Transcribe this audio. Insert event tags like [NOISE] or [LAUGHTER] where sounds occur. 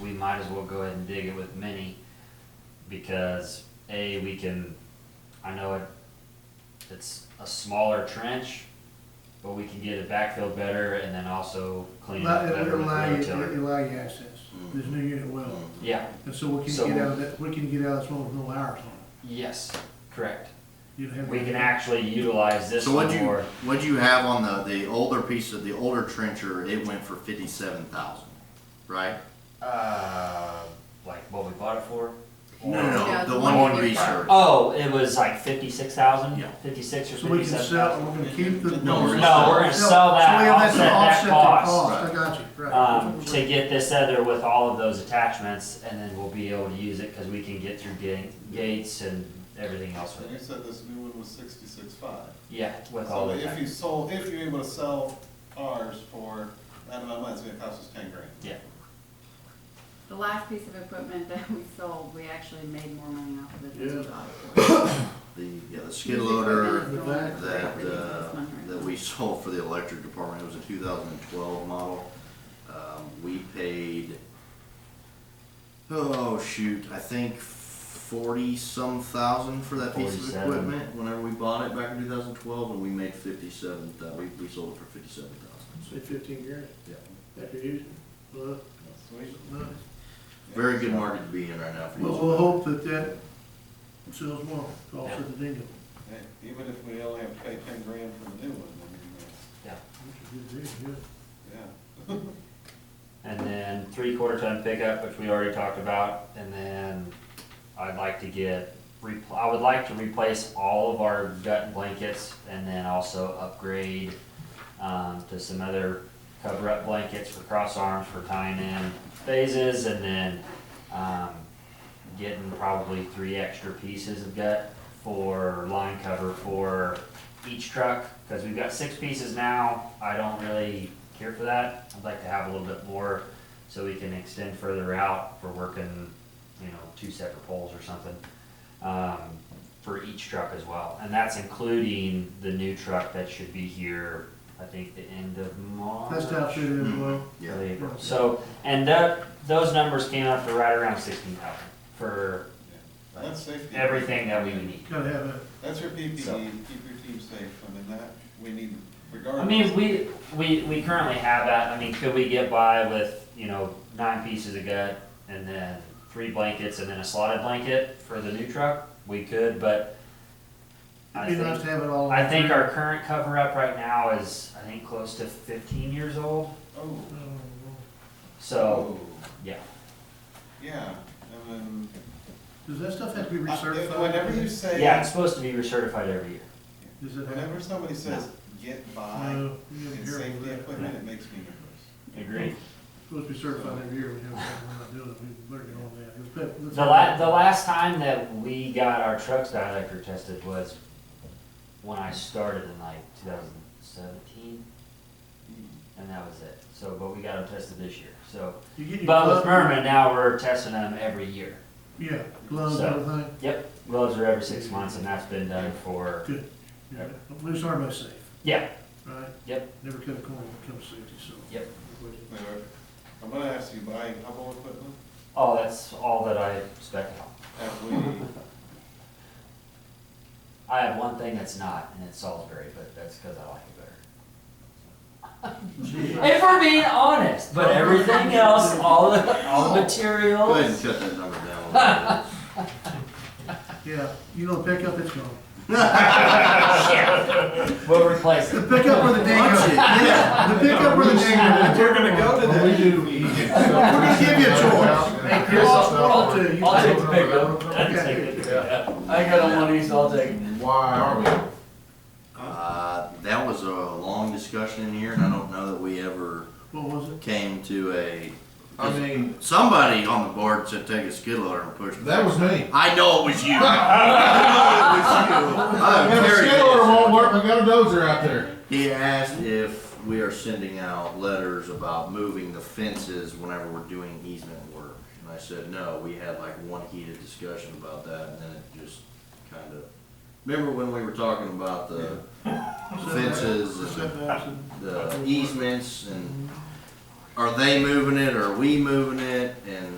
we might as well go ahead and dig it with mini because a we can I know it it's a smaller trench, but we can get it backfilled better and then also clean it Allow- up It better would with allow you, it rototiller. would allow you access, there's no unit well, Yeah. and so we Mm-hmm. can So- get out of that, we can get out of this one with no hours on it. Yes. Correct. You'd have- We can actually utilize this So one what you more. what you have on the the older piece of the older trencher? It went for fifty seven thousand, right? Uh, like what we bought it for? No, the the one one Uh, you you bought. research. Oh, it was like fifty-six thousand. Yeah. Fifty-six or So we can fifty-seven sell, thousand. we're gonna keep the. No, we're gonna No, we're gonna sell So we that, have offset to that offset cost, I got you, right. um, to get this other with all of those attachments, and then we'll be able to use it, cause we can get through ga- gates and everything else with And it. you said this new one was sixty-six five. Yeah, with all So of if you that, sold, if you're able to sell ours for that amount of money, it's gonna cost us ten grand. yeah, The last piece of equipment that we sold, we actually made more money off of it than we bought it for. The yeah the skid loader Using equipment is going that pretty uh, close money right that now. we [LAUGHS] sold for the electric department. It was a two thousand and twelve model. Um, we paid oh shoot, I think forty some thousand for that piece of 47. equipment. Whenever we bought it back in two thousand twelve, and we made fifty seven. We we sold it for fifty seven thousand. Say fifteen grand, Yeah. after using, well, Sweet. nice. Very good market to be in right now for Well, used we'll equipment. hope that that sells more, to offset the dingo. Yeah, Even if we only have to pay ten grand for the new one, I mean, uh, yeah. yeah. And then three quarter ton pickup, which we already talked about, and then I'd like to get, repl- I would like to replace all of our gut blankets and then also upgrade um, to some other cover up blankets for cross arms for tying in phases and then um, getting probably three extra pieces of gut for line cover for each truck, because we've got six pieces now, I don't really care for that. I'd like to have a little bit more, so we can extend further out for working, you know, two separate poles or something, um, for each truck as well. And that's including the new truck that should be here, I think, the end of March. That's outfitted as well. Yeah. Early April. So, and that, those numbers came out to right around sixteen thousand for Yeah. That's safety. everything that we would need. Gotta have that. That's your PPE, keep So- your team safe, I mean, that, we need regardless. I mean, we, we, we currently have that, I mean, could we get by with, you know, nine pieces of gut and then three blankets and then a slotted blanket for the new truck? We could, but I It'd be nice think, to have it all. I think our current cover up right now is, I think, close to fifteen years old, Oh. so, yeah. Yeah, and then. Does that stuff have to be I- recertified? Uh, Whenever you say. Yeah, it's supposed to be recertified every year. Does it have? Whenever somebody says, get by, No, you gotta be and careful safety with that. equipment, it makes me nervous. Agreed. Supposed to be certified every year, we have, we're not doing it, we better get on that. It's better- let's- The la, the last time that we got our trucks dielectric tested was when I started in like two thousand seventeen, and that was it. So, but we got them tested this year, so. You get your But with glove- Merman, now we're testing them every year. Yeah, gloves, So- everything, Yep, gloves are every six months, and that's been done for, good. Yeah, At least everybody's safe, yeah, right? Yep. Never cut a corner when it comes to safety, so. Yep. Now, I'm gonna ask you, buy Hubble equipment, oh, that's all that I spec on. have we, I have one thing that's not, and it's Salisbury, but that's because I like it better. If we're being honest, but everything else, all the, all the Go ahead and materials. cut that number down. a [LAUGHS] little bit. Yeah, you know, pick up, it's gone. Shit. We'll replace The it. pickup where the dang Punch goes. it. Yeah, the pickup where the dang goes. We're gonna go to that. We're gonna give you a choice. Hey, Chris, I'll tell you. I'll take the pickup. I'd take I ain't got no money, so I'll take it. Why are we? Uh, that was a long discussion in here, and I don't know that we ever What was it? came to a. I mean, Somebody on the board said take a skid loader and push. it. that was me. I know it was you. I know it [LAUGHS] was you. Uh, We I'm got a very skid loader innocent. won't work, we got a dozer out there. He asked if we are sending out letters about moving the fences whenever we're doing easement work. And I said, no, we had like one heated discussion about that and then it just kind of, remember when we were talking about the fences and Setbacks and- the easements and are they moving it, or are we moving it, and